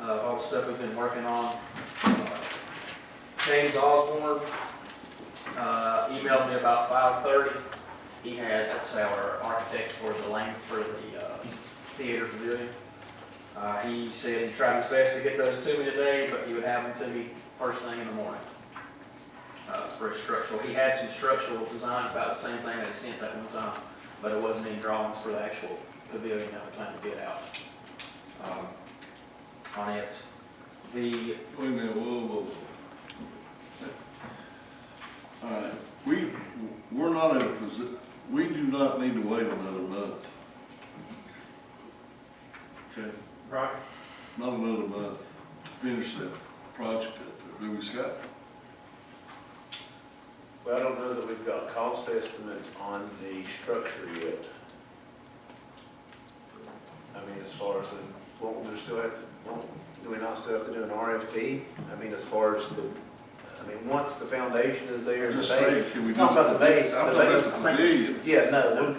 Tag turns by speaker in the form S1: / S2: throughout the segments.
S1: uh, the stuff we've been working on. Uh, James Osborne, uh, emailed me about five thirty. He has, that's our architect for the lane for the, uh, theater pavilion. Uh, he said he tried his best to get those to me today, but he would have them to me first thing in the morning. Uh, for his structural, he had some structural designs about the same thing that he sent that one time, but it wasn't in drawings for the actual pavilion that we're trying to get out, um, on it. The
S2: Wait a minute, whoa, whoa, whoa. All right, we, we're not in a posi, we do not need to wait another month. Okay,
S1: Right.
S2: not another month to finish that project up there, do we, Scott?
S3: Well, I don't know that we've got cost estimates on the structure yet. I mean, as far as, the- won't we still have, to- won't, do we not still have to do an RFP? I mean, as far as the, I mean, once the foundation is there, the
S2: Just saying,
S3: base.
S2: can we do?
S3: Talking about the base,
S2: I'm
S3: the
S2: talking
S3: base,
S2: about the
S1: I think-
S2: pavilion.
S3: Yeah, no,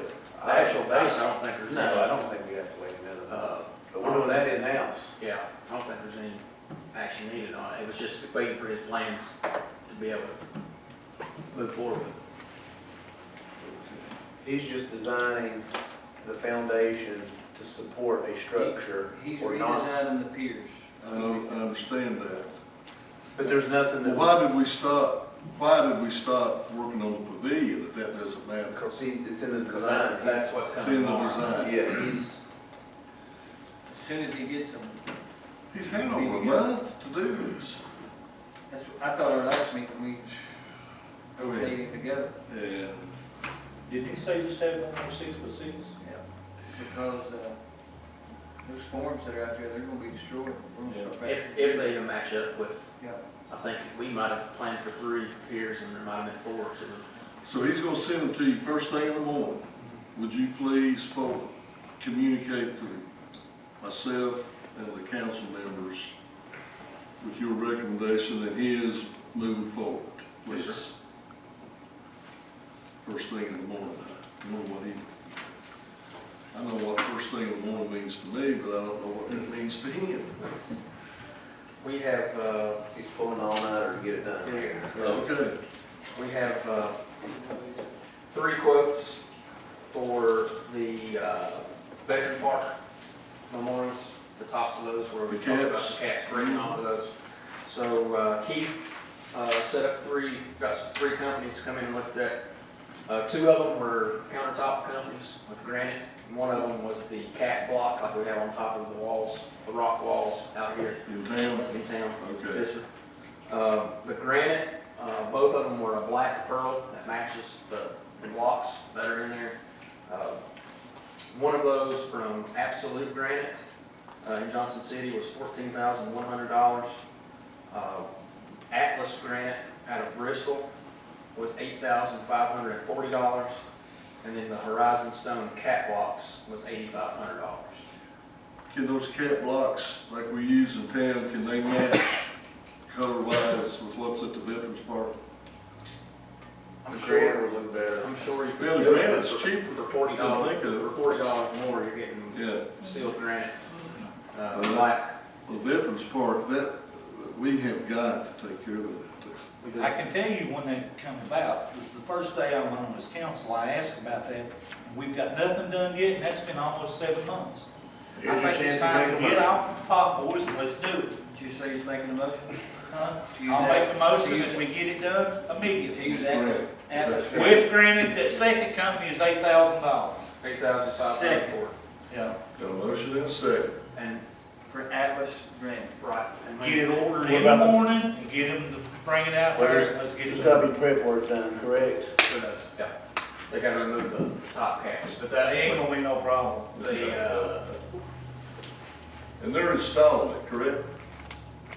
S1: The actual base, I don't think
S3: we-
S1: there's. any.
S3: no, I don't think we have to wait another
S1: Uh,
S3: month, but we're doing that in-house.
S1: Yeah, I don't think there's any action needed on it. It was just waiting for his plans to be able to move forward.
S3: He's just designing the foundation to support a structure
S4: He's
S3: or not.
S4: redesigning the piers.
S1: Uh,
S2: I, don't- I understand that.
S3: But there's nothing
S2: Well,
S3: that.
S2: why did we stop, why did we stop working on the pavilion if that doesn't matter?
S3: Because he, it's in the design.
S1: That- That's what's
S2: It's
S1: coming.
S2: in the
S1: tomorrow.
S2: design.
S3: Yeah, he's,
S4: As soon as he gets them,
S2: He's had over a month to do this.
S4: that's, what- I thought our last meeting, we
S2: Oh, yeah.
S4: rotated together.
S2: And
S5: Didn't you say you just had one more six foot six?
S4: Because, uh, those forms that are out there, they're gonna be destroyed. We're gonna start back.
S1: If, if they even match up with,
S4: Yeah,
S1: I think we might have planned for three piers and there might have been four, so
S2: So he's gonna send them to you first thing in the morning. Would you please forward, communicate to myself and the council members with your recommendation and his moving forward,
S1: Yes, sir.
S2: please? First thing in the morning, I know what he, I know what first thing in the morning means to me, but I don't know what that means to him.
S1: we have, uh,
S3: he's pulling all nighter to get it done.
S1: Here.
S2: Okay,
S1: We have uh, three quotes for the uh, Veteran Park memorials, the tops of those where we
S2: The
S1: talked about
S2: caps. Mm-hmm.
S1: the cats bringing off of those. So uh, Keith uh, set up three, got three companies to come in and look at that. Uh, Two of them were countertop companies with granite, and one of them was the cast block like we have on top of the walls, the rock walls out here
S2: in town,
S1: in town.
S2: okay.
S1: Yes, sir. Uh, The granite, uh, both of them were a black pearl that matches the the blocks that are in there. Uh, One of those from Absolute Granite uh, in Johnson City was fourteen thousand one hundred dollars. Uh, Atlas Granite out of Bristol was eight thousand five hundred and forty dollars. And then the Horizon Stone Catwalks was eighty-five hundred dollars.
S2: Can those cat blocks, like we use in town, can they match color wise with what's at the Veterans Park?
S3: The
S1: I'm sure
S3: creator would look better.
S1: I'm sure you.
S2: Well,
S1: could
S2: the
S1: do it
S2: granite's
S1: for-
S2: cheaper.
S1: For forty
S2: I
S1: dollars,
S2: think of it.
S1: for forty dollars more, you're getting
S2: Yeah,
S1: sealed granite, uh,
S2: Mhm.
S1: black.
S2: the Veterans Park, that, we have got to take care of that
S1: We do-
S5: I can tell you when that come about, because the first day I went on this council, I asked about that, and we've got nothing done yet, and that's been almost seven months.
S3: Here's
S5: I
S3: your
S5: think it's
S3: chance to make
S5: time
S3: a
S5: to get
S3: motion.
S5: off the pot, boys, and let's do it.
S4: did you say he's making a motion?
S5: huh?
S4: To use
S5: I'll make
S4: that-
S5: a motion
S4: to use-
S5: and we get it done
S4: To
S5: immediately.
S4: use Atlas,
S2: Right.
S4: Atlas.
S2: That's
S4: Granite.
S5: With granted, that second company is eight thousand dollars.
S1: Eight thousand five hundred
S4: Second.
S1: for,
S5: Yeah.
S2: too. Got a motion and a second.
S1: and,
S4: For Atlas Granite.
S1: right. and
S5: Get it ordered in the
S3: What about the-
S5: morning, and get them to bring it out
S3: Well,
S5: there,
S3: there's-
S5: let's get
S3: There's
S5: it
S3: gotta
S5: done.
S3: be prep work done, correct?
S1: for those, Yeah, they gotta remove the the top caps, but
S5: That
S1: that
S5: ain't
S1: angle,
S5: gonna be no problem.
S1: the, uh,
S2: And they're installing it, correct?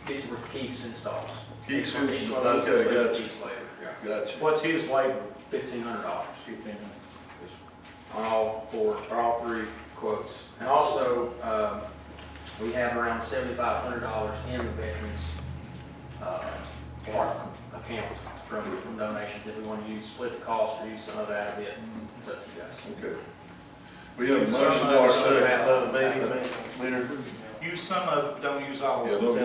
S1: these were Keith's installs.
S2: Keith's,
S1: Each one of those
S2: okay,
S1: includes
S2: gotcha,
S1: Keith's labor, yeah.
S2: gotcha.
S5: What's his labor?
S1: Fifteen hundred dollars. on all four, or all three quotes. And also, um, we have around seventy-five hundred dollars in the veterans, uh, park account from, from donations. If we want to use, split the cost or use some of that a bit, it's up to you guys.
S2: Okay. We have a motion and a
S3: Half
S2: second.
S3: of it, maybe, maybe, Leonard?
S5: Use some of it, don't use all of it.
S2: Yeah, no